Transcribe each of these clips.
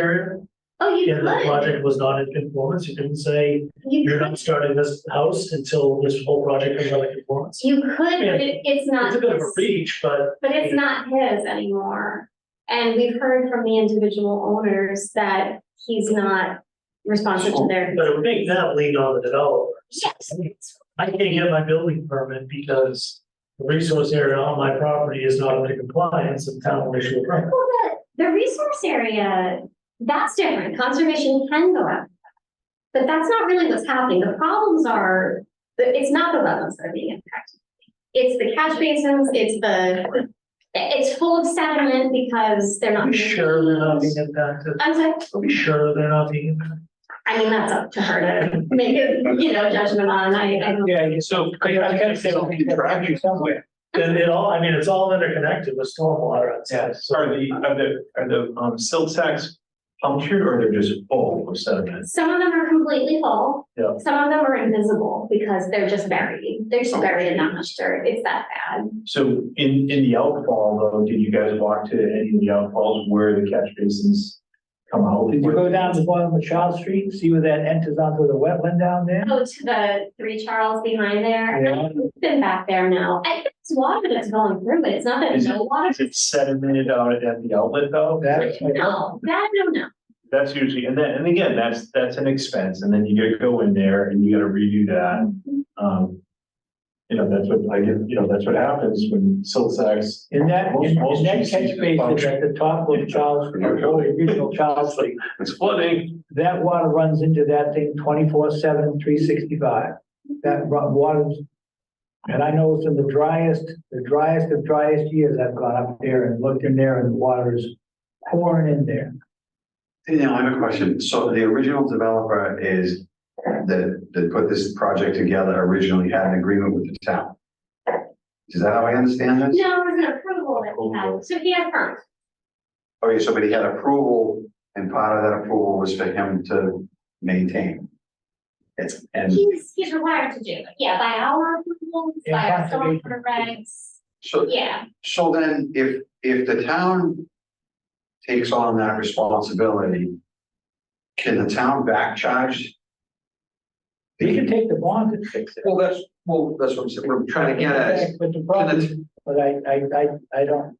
area. Oh, you Yeah, the could, project was not in conformance. You couldn't say, you you're could, not starting this house until this whole project comes out of conformance. you could, but it- it's not. It's a bit of a his- reach, but But it's not his anymore. And we've heard from the individual owners that he's not responsive to their. but it would make that lean on the developer. Yes. I can't get my building permit because the resource area on my property is not under compliance and town will issue a permit. Well, the, the resource area, that's different. Conservation can go up. But that's not really what's happening. The problems are, the- it's not the wetlands that are being impacted. It's the catch basins, it's the, it's full of sediment because they're Are not. we sure they're not being maintained. impacted? I'm sorry, Are we sure they're not being impacted? I mean, that's up to her to make a, you know, judgment on. I, I don't. Yeah, so I gotta say, we can track you somewhere. Then it all, I mean, it's all interconnected with stormwater and stuff. Yes, are the, are the, are the um silt sacks punctured or they're just full of sediment? Some of them are completely full. Yeah. Some of them are invisible because they're just buried. They're just buried in that much dirt. It's that bad. So in, in the outfall though, did you guys walk to any of the outfalls where the catch basins come out? Did you go down to the bottom of Charles Street, see where that enters onto the wetland down there? Go to the three Charles behind there. Yeah. I've Been back there now. I think it's water that's going through it. It's not that Is no water. Is it sedimented out at the outlet though? That's my- No, that I don't know. That's usually, and then, and again, that's, that's an expense, and then you gotta go in there and you gotta redo that. Um, you know, that's what I get, you know, that's what happens when silt sacks. In that, in Most- in that most catch GCs basin at function. the top of Charles, Street, or the original Charles Street, It's flooding. that water runs into that thing 24/7, 365. That ru- water's, and I know it's in the driest, the driest of driest years I've gone up there and looked in there and the water is pouring in there. Hey, now I have a question. So the original developer is that, that put this project together originally had an agreement with the town. Is that how I understand this? No, it was an approval that we had. So he had permit. Okay, so but he had approval and part of that approval was for him to maintain. It's, and He's, he's required to do it. Yeah, by our approvals, It by our has to be. stormwater regs. so, Yeah, so then if, if the town takes on that responsibility, can the town back charge? You can take the bond and fix it. Well, that's, well, that's what I'm saying. What I'm trying to get at is, But the can problem the is But I, I, I, I don't.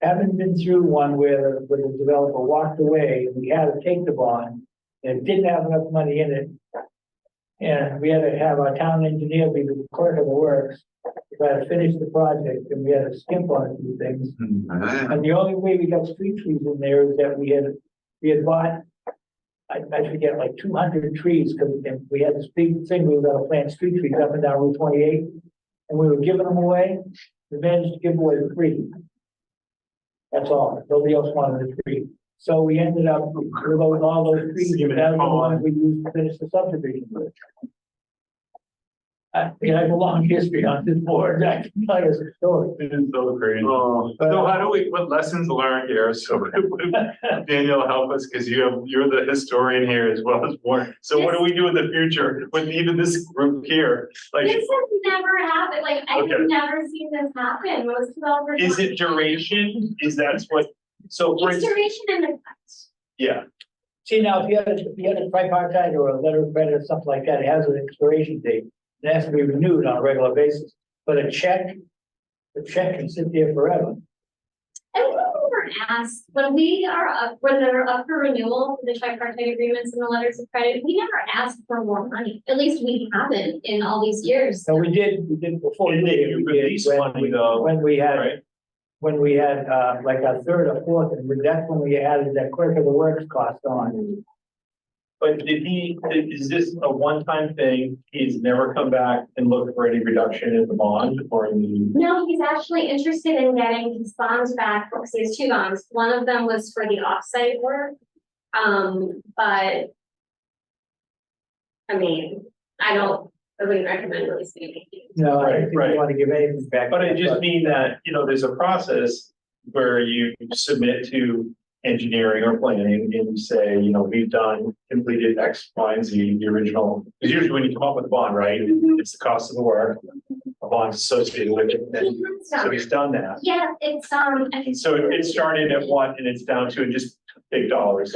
Haven't been through one where, where the developer walked away and we had to take the bond and it didn't have enough money in it. And we had to have our town engineer be the clerk of the works, we had to finish the project and we had to skimp on a few things. 음, And the only way we got street trees in there is that we had, we had bought. I, I forget, like two hundred trees, cause and we had this big thing, we were gonna plant street trees up and down Route twenty-eight. And we were giving them away, we managed to give away three. That's all, nobody else wanted a tree. So we ended up with all those trees, and that was the one we used to finish the subdivision with. I, I have a long history on this board, I can tell you a story. It is so crazy. Oh, But- so how do we, what lessons learned here? So Daniel, help us, because you have, you're the historian here as well as Warren. So what do we do in the future with even this group here? this Like, has never happened, like, I have Okay. never seen this happen, most developers. is it duration? Is that what, so for, It's duration and effect. yeah, See, now, if you had, a if you had a tripartite or a letter of credit or something like that, it has an expiration date. It has to be renewed on a regular basis, but a check, a check can sit there forever. And when we were asked, when we are up, when they're up for renewal, for the tripartite agreements and the letters of credit, we never asked for more money. At least we haven't in all these years. So we did, we did before. And then we did, you we did release when money, we- though, When we had, right? when we had, uh, like a third or fourth, and that's when we added that clerk of the works cost on. But did he, is this a one-time thing? He's never come back and looked for any reduction in the bond or in the, No, he's actually interested in getting his bonds back, because he has two bonds. One of them was for the offsite work. Um, but. I mean, I don't, I wouldn't recommend releasing it. No, I don't think Right, we right. want to give anything back. but I just mean that, you know, there's a process where you submit to engineering or planning and you say, you know, we've done, completed X, Y, and Z, the original. Because usually when you come up with a bond, right, it's the cost of the work, a bond associated with it, and so he's done that. Yeah, it's, um. I think- So it it started at one and it's down to just big dollars.